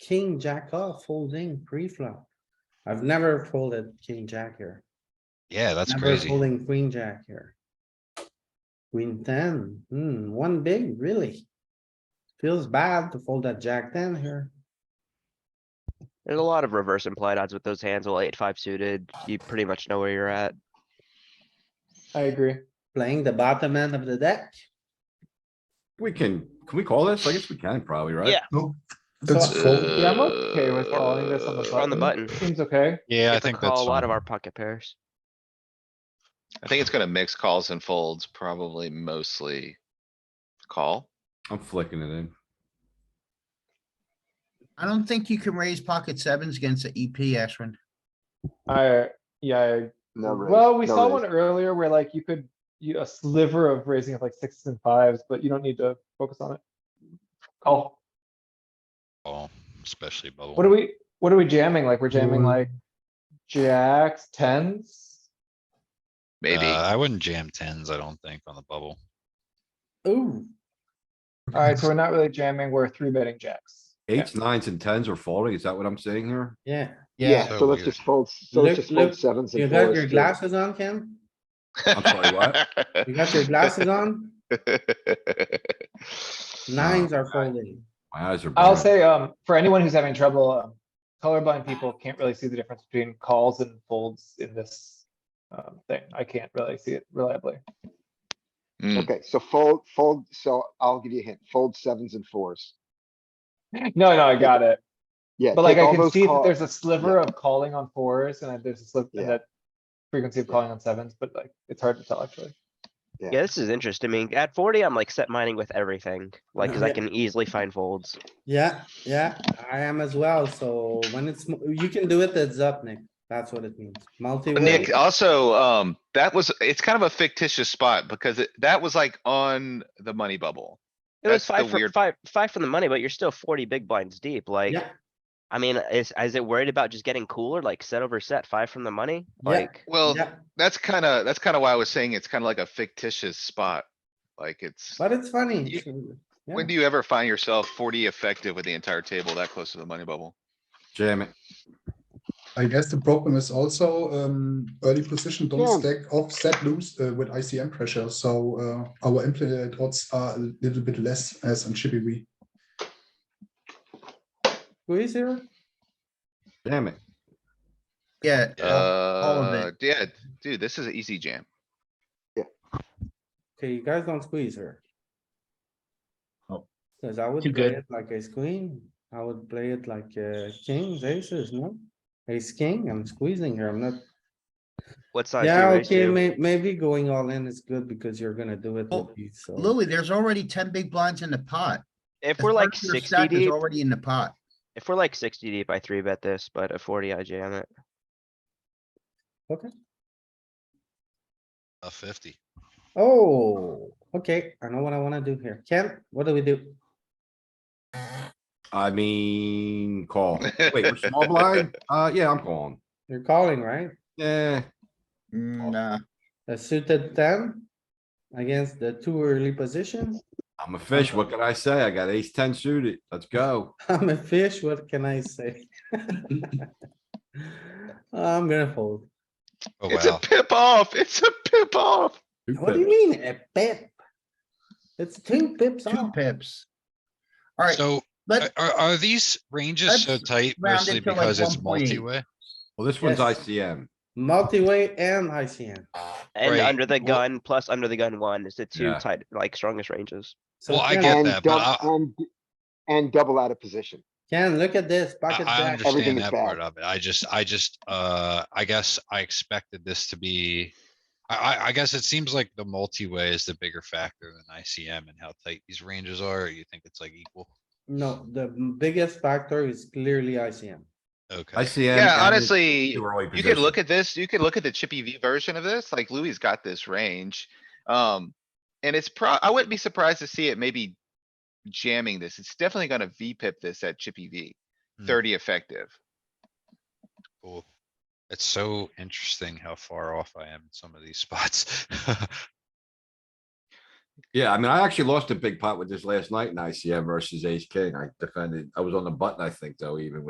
king, jack off, folding pre-flop. I've never folded king, jack here. Yeah, that's Never crazy. Folding queen, jack here. Queen ten, hmm, one big, really? Feels bad to fold that jack ten here. There's a lot of reverse implied odds with those hands. Well, eight, five suited, you pretty much know where you're at. I agree. Playing the bottom end of the deck. We can, can we call this? I guess we can probably, right? Yeah. So, That's, uh, yeah, I'm okay with calling this on the On the button. Seems okay. Yeah, I Get to think that's Call a lot of fine. our pocket pairs. I think it's gonna mix calls and folds, probably mostly call. I'm flicking it in. I don't think you can raise pocket sevens against the EP, Ashwin. I, yeah, I- No raise, well, we no saw raise. one earlier where like you could, you, a sliver of raising of like sixes and fives, but you don't need to focus on it. Call. Oh, Especially bubble. What are we, what are we jamming? Like, we're jamming Mm. like jacks, tens? Uh, Maybe. I wouldn't jam tens, I don't think, on the bubble. Ooh, Alright, so we're not really jamming, we're three betting jacks. Eights, nines and tens are folding. Is that what I'm saying here? yeah. so Yeah, so let's weird. just fold, so Look- let's just look, fold sevens You and got fours. your too. glasses on, Ken? I'm sorry, what? You got your glasses on? Nines are folding. My eyes are. I'll burning. say, um, for anyone who's having trouble, um, colorblind people can't really see the difference between calls and folds in this. Um, thing, I can't really see it reliably. Mm, Okay, so fold, fold, so I'll give you a hint, fold sevens and fours. No, no, I got it. Yeah. But like take I all can those see that call- there's a sliver of calling on fours and that there's a slip Yeah. and that frequency of calling on sevens, but like it's hard to tell actually. Yeah. Yeah, this is interesting. I mean, at forty, I'm like set mining with everything, like, cause I Yeah. can easily find folds. Yeah, yeah, I am as well. So when it's, mo- you can do it, it's up, Nick. That's what it means. But Multi-way. Nick, also, um, that was, it's kind of a fictitious spot because it, that was like on the money bubble. It was That's the five, fro- weird- five, five from the money, but you're still forty big blinds deep, like. Yeah. I mean, is, is it worried about just getting cooler, like set over set, five from the money? Yeah. Like, Well, Yeah, that's kinda, that's kinda why I was saying it's kinda like a fictitious spot. Like it's, but it's funny. yeah. when do you ever find yourself forty effective with the entire table that close to the money bubble? Jam it. I guess the problem is also um, early position don't Yeah. stack offset loose uh, with ICM pressure, so uh, our implied odds are a little bit less as on Chippy V. Who is here? Jam it. Yeah, of it. Uh, yeah, dude, this is an easy jam. Okay, you guys don't squeeze her. Oh. Cause I would Too play good. it like ace queen, I would play it like uh kings, aces, no? Ace king, I'm squeezing here, I'm not, what's on? yeah, okay, may, maybe going all in is good because you're gonna do it Well, with these, so. Louis, there's already ten big blinds in the pot. If The we're like third of your sixty stack is deep, Already in the pot. if we're like sixty deep, I three bet this, but at forty, I jam it. A fifty. Oh, okay, I know what I wanna do here. Ken, what do we do? I mean, call. Wait, we're small blind? Uh, yeah, I'm calling. Eh, You're calling, right? Yeah, Mm, Nah, A suited ten against the two early position. I'm a fish. What can I say? I got ace ten suited. Let's go. I'm a fish, what can I say? I'm gonna fold. Oh, It's a wow. pip off. It's a pip off. Two What do you pips. mean, a pip? It's two pips two off. pips. Alright, So are, let, are are these ranges so let's tight round it to mostly like because it's 1.8. multi-way? Well, this one's Yes. ICM. Multi-way and ICM. And Right, under the well- gun, plus under the gun one is the two Yeah. tight, like strongest ranges. So Well, I Ken- get and that, but dou- I- and- And double out of position. Ken, look at this, I, pocket I everything jack. understand is that part bad. of it. I just, I just, uh, I guess I expected this to be. I, I, I guess it seems like the multi-way is the bigger factor than ICM and how tight these ranges are. or You think it's like equal? No, the biggest factor is clearly ICM. Okay, ICM. Yeah, and honestly, two early you could position. look at this, you could look at the Chippy V version of this, like Louis's got this range. Um, and it's pro, I wouldn't be surprised to see it maybe jamming this. It's definitely gonna V pip this at Chippy V. Hmm. Thirty effective. cool. It's so interesting how far off I am in some of these spots. Yeah, I mean, I actually lost a big pot with this last night in ICM versus ace king. I defended, I was on the button, I think, though, even with.